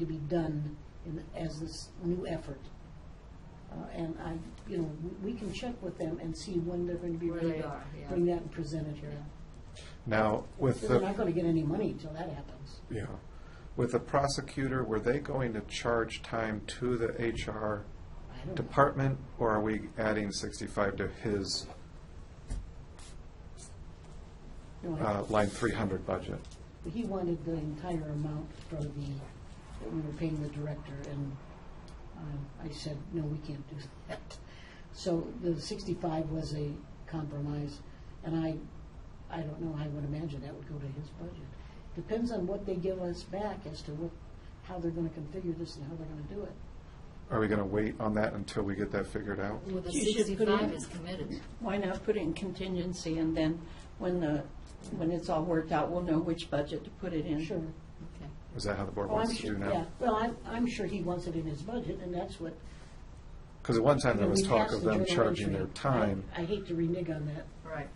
to be done in, as this new effort. Uh, and I, you know, we- we can check with them and see when they're going to be Where ready they to are, yeah. bring that and present it here. Now, with They're the, not going to get any money until that happens. yeah, with the prosecutor, were they going to charge time to the HR I don't know. department, or are we adding sixty-five to his, No, I- uh, line three hundred budget? He wanted the entire amount for the, that we were paying the director, and um, I said, no, we can't do that. So the sixty-five was a compromise, and I, I don't know, I would imagine that would go to his budget. Depends on what they give us back as to what, how they're gonna configure this and how they're gonna do it. Are we gonna wait on that until we get that figured out? Well, the You should put it sixty-five in. is committed. Why not put it in contingency, and then when the, when it's all worked out, we'll know which budget to put it in? Sure. Okay. Is that how the board Oh, I'm wants to do sure. now? Yeah. Well, I'm, I'm sure he wants it in his budget, and that's what. Because at one time, there was we talk asked of the them journal charging their entry. time. I I hate to renege on that, Right.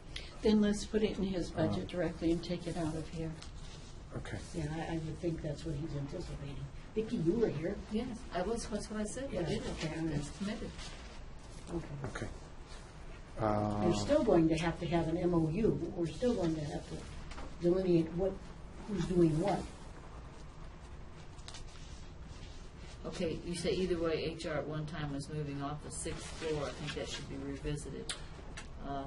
Then let's put it in his budget directly and take it out of here. Okay. Yeah, I, I would think that's what he's anticipating. Vicki, you were here. Yes, I was, that's what I said, we Yeah, did okay, it, all right. it's committed. Okay. Okay. You're Uh, still going to have to have an MOU. We're still going to have to delineate what, who's doing what. Okay, you say either way, HR at one time was moving off the sixth floor, I think that should be revisited. Uh,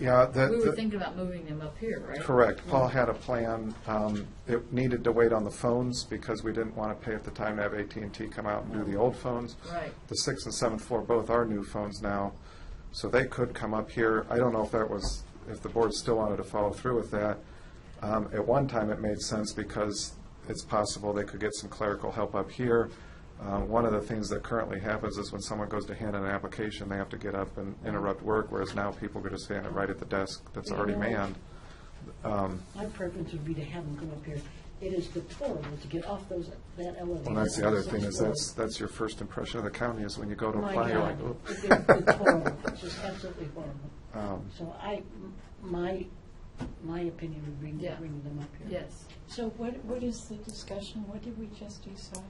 Yeah, We were that, thinking about moving them up here, right? Uh, correct. Paul had a plan. Um, It needed to wait on the phones because we didn't want to pay at the time to have at and t come out and do the old phones. Right. The sixth and seventh floor both are new phones now, so they could come up here. I don't know if that was, if the board still wanted to follow through with that. Um, At one time, it made sense because it's possible they could get some clerical help up here. Uh, One of the things that currently happens is when someone goes to hand in an application, they have to get up and interrupt work, whereas now people could just hand it right at the desk that's already manned. Um, My preference would be to have them come up here. It is deplorable to get off those, that elevator. And that's the other thing, is that's, that's your first impression of the county, is when you go to My apply, you're God, like, it's "Oop." deplorable. It's just absolutely horrible. Um, So I, m- my, my opinion would be to Yeah. bring them up here. Yes. So what, what is the discussion? What did we just decide?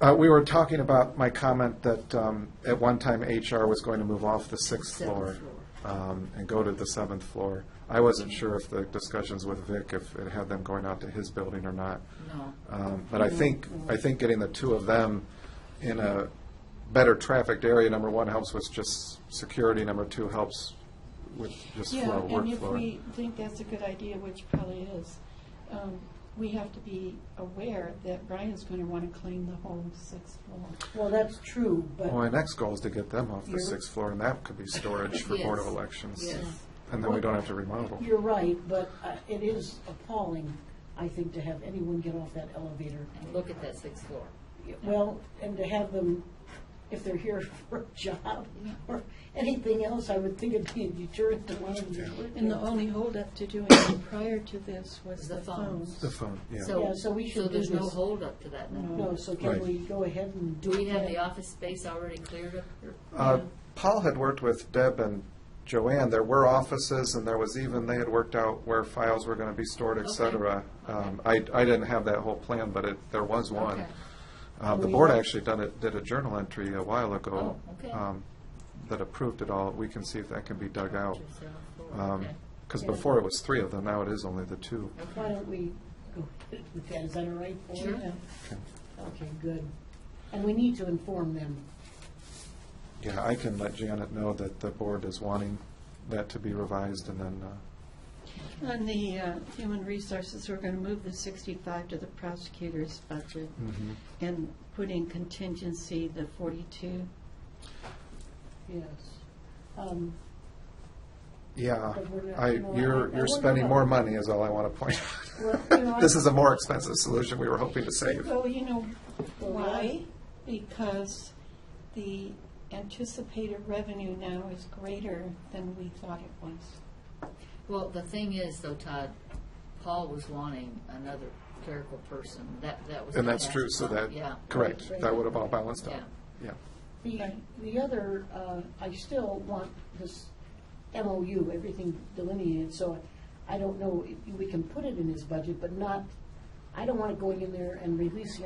Uh, we were talking about my comment that, um, at one time HR was going to move off the sixth Seventh floor, um, and go to the seventh floor. I wasn't sure if the discussions with Vic, if it had them going out to his building or not. No. Um, But I think, I think getting the two of them in a better trafficked area, number one, helps with just security, number two, helps with just Yeah, flow, and workflow. if we think that's a good idea, which probably is, um, we have to be aware that Brian's going to want to clean the whole sixth floor. Well, that's true, but. Well, my next goal is to get them off the You're- sixth floor, and that could be storage for Board of Yes. Elections. Yes. And then we don't have to remodel. You're right, but uh, it is appalling, I think, to have anyone get off that elevator. And look at that sixth floor. Well, and to have them, if they're here for a job or anything else, I would think it'd be a deterrent to one of them. And the only holdup to doing it prior to this was The the phones. phones. The phone, yeah. So, Yeah, so we should So do there's no this. holdup to that now. No, so can Right. we go ahead and do Do it? we have then? the office space already cleared up here? Uh, Paul had worked with Deb and Joanne. There were offices, and there was even, they had worked out where files were going to be stored, et Okay. cetera. Um, I, I didn't have that whole plan, but it, there was one. Okay. Uh, The We- board actually done it, did a journal entry a while ago. Oh, okay. um, That approved it all. We can see if that can be dug out. Um, Seventh floor, okay. Because Yeah. before it was three of them, now it is only the two. Why don't we go with that? Is that all right? for you? Sure. Okay, good. And we need to inform them. Yeah, I can let Janet know that the board is wanting that to be revised, and then, uh, On the uh, human resources, we're going to move the 65 to the prosecutor's budget Hmm. and put in contingency the 42. Yes. Um, yeah, But we're not- I, no, I- I you're, wonder you're spending about- more money is all I want to point Well, you know, I- out. This is a more expensive solution we were hoping to save. Well, you know, Well, why? Because the anticipated revenue now is greater than we thought it was. Well, the thing is, though, Todd, Paul was wanting another clerical person. That, that was. And my that's true, so last that, thought. Yeah. correct, Right. that would have all balanced out. Yeah. Yeah, The, the other, uh, I still want this MOU, everything delineated, so I don't know, if we can put it in his budget, but not I don't want it going in there and releasing